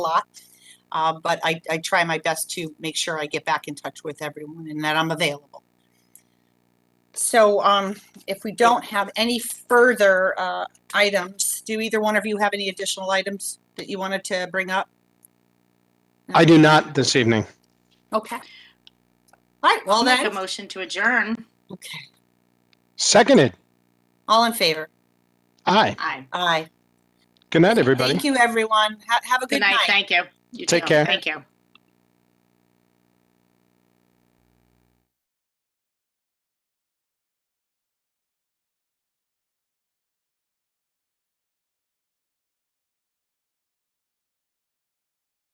lot. Uh, but I, I try my best to make sure I get back in touch with everyone and that I'm available. So, um, if we don't have any further, uh, items, do either one of you have any additional items that you wanted to bring up? I do not this evening. Okay. All right, well Make a then, motion to adjourn. okay, Seconded. all in favor? Aye. Aye. Aye. Good night, everybody. Thank you, everyone. Ha- have a Good night. Thank you. You Take too. care. Thank you.